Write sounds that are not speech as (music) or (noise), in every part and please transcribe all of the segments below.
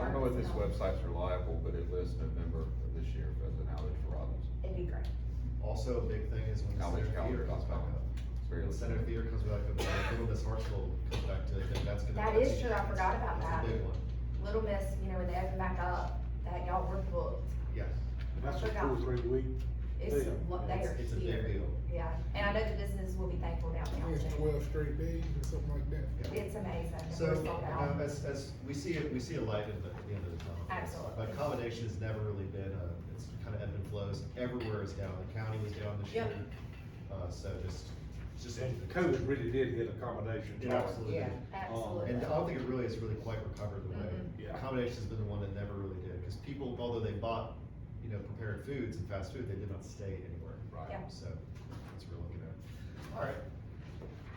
if this website's reliable, but it lists November of this year as an outage for Robinson. It'd be great. Also, a big thing is when the Outreach Center Theater calendar comes back dot com. up. It's very When the Center Theater comes back up, like, Little Miss Hartsville comes back to, it, then that's gonna. That that's is a- true, I forgot about that. That's a big one, Little Miss, you know, when they open back up, that y'all were booked. yes. That's just two or three weeks. It's, Yeah. what they are It's- It's a big here. deal. Yeah, and I know the businesses will be thankful downtown It's too. twelve straight days or something like that. It's amazing. and So, we're sold out. um, as, as, we see, it- we see a light at the, at the end of the tunnel. Absolutely. But accommodation has never really been, uh, it's kind of ebb and flows, everywhere is down, the county was down this year. Yep. Uh, so just, it's just. And COVID really did hit accommodations. It absolutely did. Absolutely. And I don't think it really has really quite recovered the way, Mhm. Yeah. accommodation's been the one that never really did, because people, although they bought, you know, prepared foods and fast food, they did not stay anywhere. Right. Yeah. So, that's what we're looking at. Alright,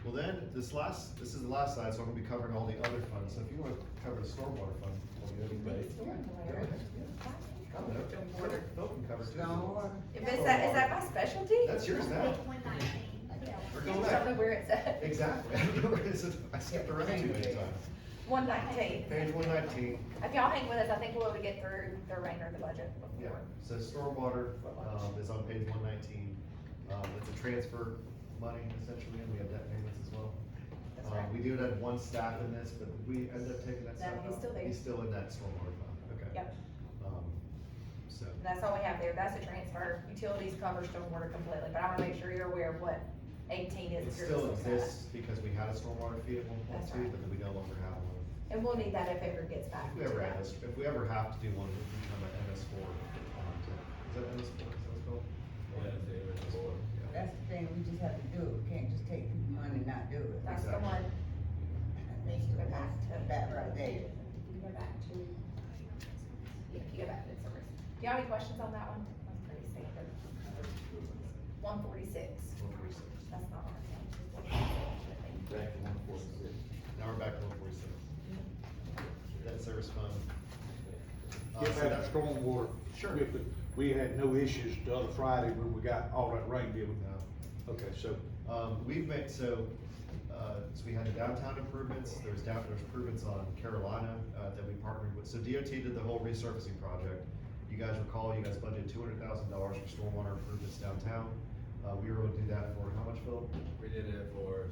well then, this last, this is the last slide, so I'm gonna be covering all the other funds, so if you wanna cover the stormwater fund, what we already Big made. storm Go alert. ahead, yeah. I don't know. Phil can cover it, too. If it's that, is that my specialty? That's yours now, One nineteen. we're You going just tell me back. where it's at. Exactly, (laughs) I skipped around too many times. One nineteen. Page one nineteen. If y'all hang with us, I think we'll be able to get through the remainder of the budget Yeah, before. so stormwater, um, is on page one nineteen, um, it's a transfer money essentially, and we have debt payments as well. That's Um, right. we do have one staff in this, but we end up taking No, that staff out. he's still there. He's still in that stormwater fund, okay. Yep. Um, so, That's all we have there. That's a transfer. Utilities cover stormwater completely, but I wanna make sure you're aware of what eighteen is. it if you're still listening to us. exists because we had a stormwater fee at one point That's two, right. but then we no longer have one. And we'll need that if it ever gets back. If we ever, have- if we ever have to do one, we can come at MS four, um, to- is that MS four, is that what it's called? Yeah, it's the MS four. Yeah. That's the thing, we just have to do it, we can't just take people's money and not do it. That's the Exactly. one. That's Go back to- That right there. You go back to, yeah, you go back to the service. Do you have any questions on that one? That's pretty standard. One forty-six, One forty-six. that's not our thing. Back to one forty-six. Now we're back to one forty-six. Debt service fund. Uh, Get so back that- to stormwater. Sure. We could- We had no issues the other Friday when we got all that rain dealing. No. Okay, so Um, we've made, so, uh, so we had the downtown improvements, there's down, there's improvements on Carolina, uh, that we partnered with, so DOT did the whole resurfacing project. You guys recall, you guys budgeted two hundred thousand dollars for stormwater improvements downtown, uh, we were able to do that for how much, Phil? We did it for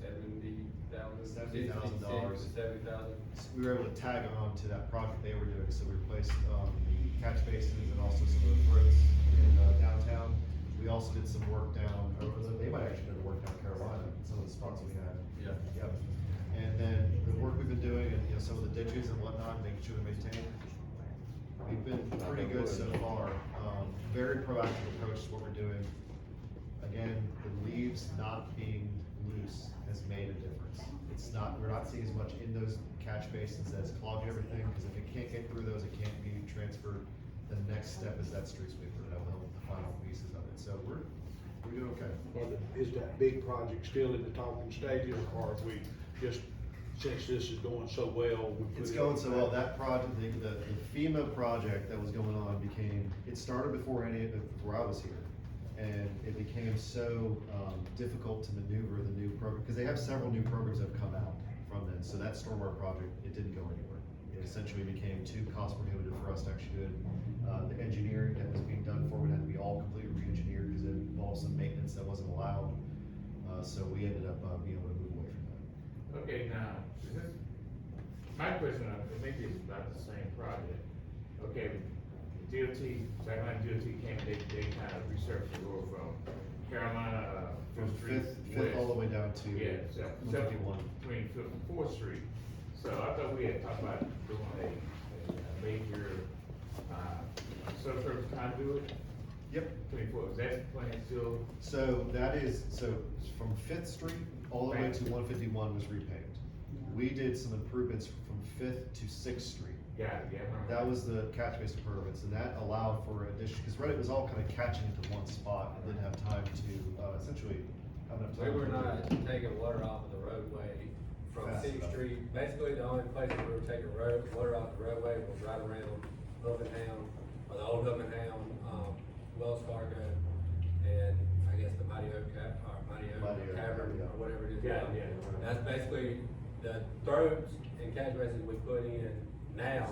seventy thousand. $70,000. Seventy thousand. We were able to tag on to that project they were doing, so we replaced, um, the catch basins and also some of the throats in uh, downtown. We also did some work down, or was it- they might actually did work down Carolina, some of the spots we had. Yeah. Yep. And then the work we've been doing and, you know, some of the ditches and whatnot, making sure they're maintained. We've been pretty good so far. Um, very proactive approach to what we're doing. Again, the leaves not being loose has made a difference. It's not, we're not seeing as much in those catch basins that's clogging everything, because if it can't get through those, it can't be transferred. The next step is that street sweeper, that will help with the final pieces of it. So we're, we're doing okay. are the- is that big project still in the talking stages or have we just, since this is going so well? we put It's it- going so well, that project, the, the the FEMA project that was going on became, it started before any, before I was here. And it became so, um, difficult to maneuver the new program, because they have several new programs that have come out from then, so that stormwater project, it didn't go anywhere. It essentially became too cost prohibitive for us to actually do it. Uh, the engineering that was being done for it had to be all completely re-engineered, because it involved some maintenance that wasn't allowed. Uh, so we ended up, uh, being able to move away from that. Okay, now, is this- my question, uh, maybe it's about the same project. Okay, DOT, Sacramento DOT came, they, they kind of researched the road from Carolina, uh, From Fifth Street Fifth, Fifth all the west. way down to Yeah, one so, fifty-one. between Fifth and Fourth Street. So I thought we had talked about doing a, a major, uh, subsurface conduit Yep. between Fourth, is that plan still So that is, so from Fifth Street all the way to one fifty-one was repaved. We did some improvements from Fifth to Sixth Street. Yeah, yeah. I remember. That was the catch basin improvements, and that allowed for addition, because Reddit was all kind of catching into one spot and didn't have time to, uh, essentially, have enough time. We were to- not taking water off of the roadway from Fast Sixth enough. Street. Basically, the only place we were taking road, water off the roadway was right around Ovenhound, or the old Ovenhound, um, Wells Fargo, and I guess the Mighty Oak Ca- or Mighty Mighty Oak, Oak Cavern, yeah. or whatever it is. Yeah, now. yeah. That's basically the throats and catch basins we put in now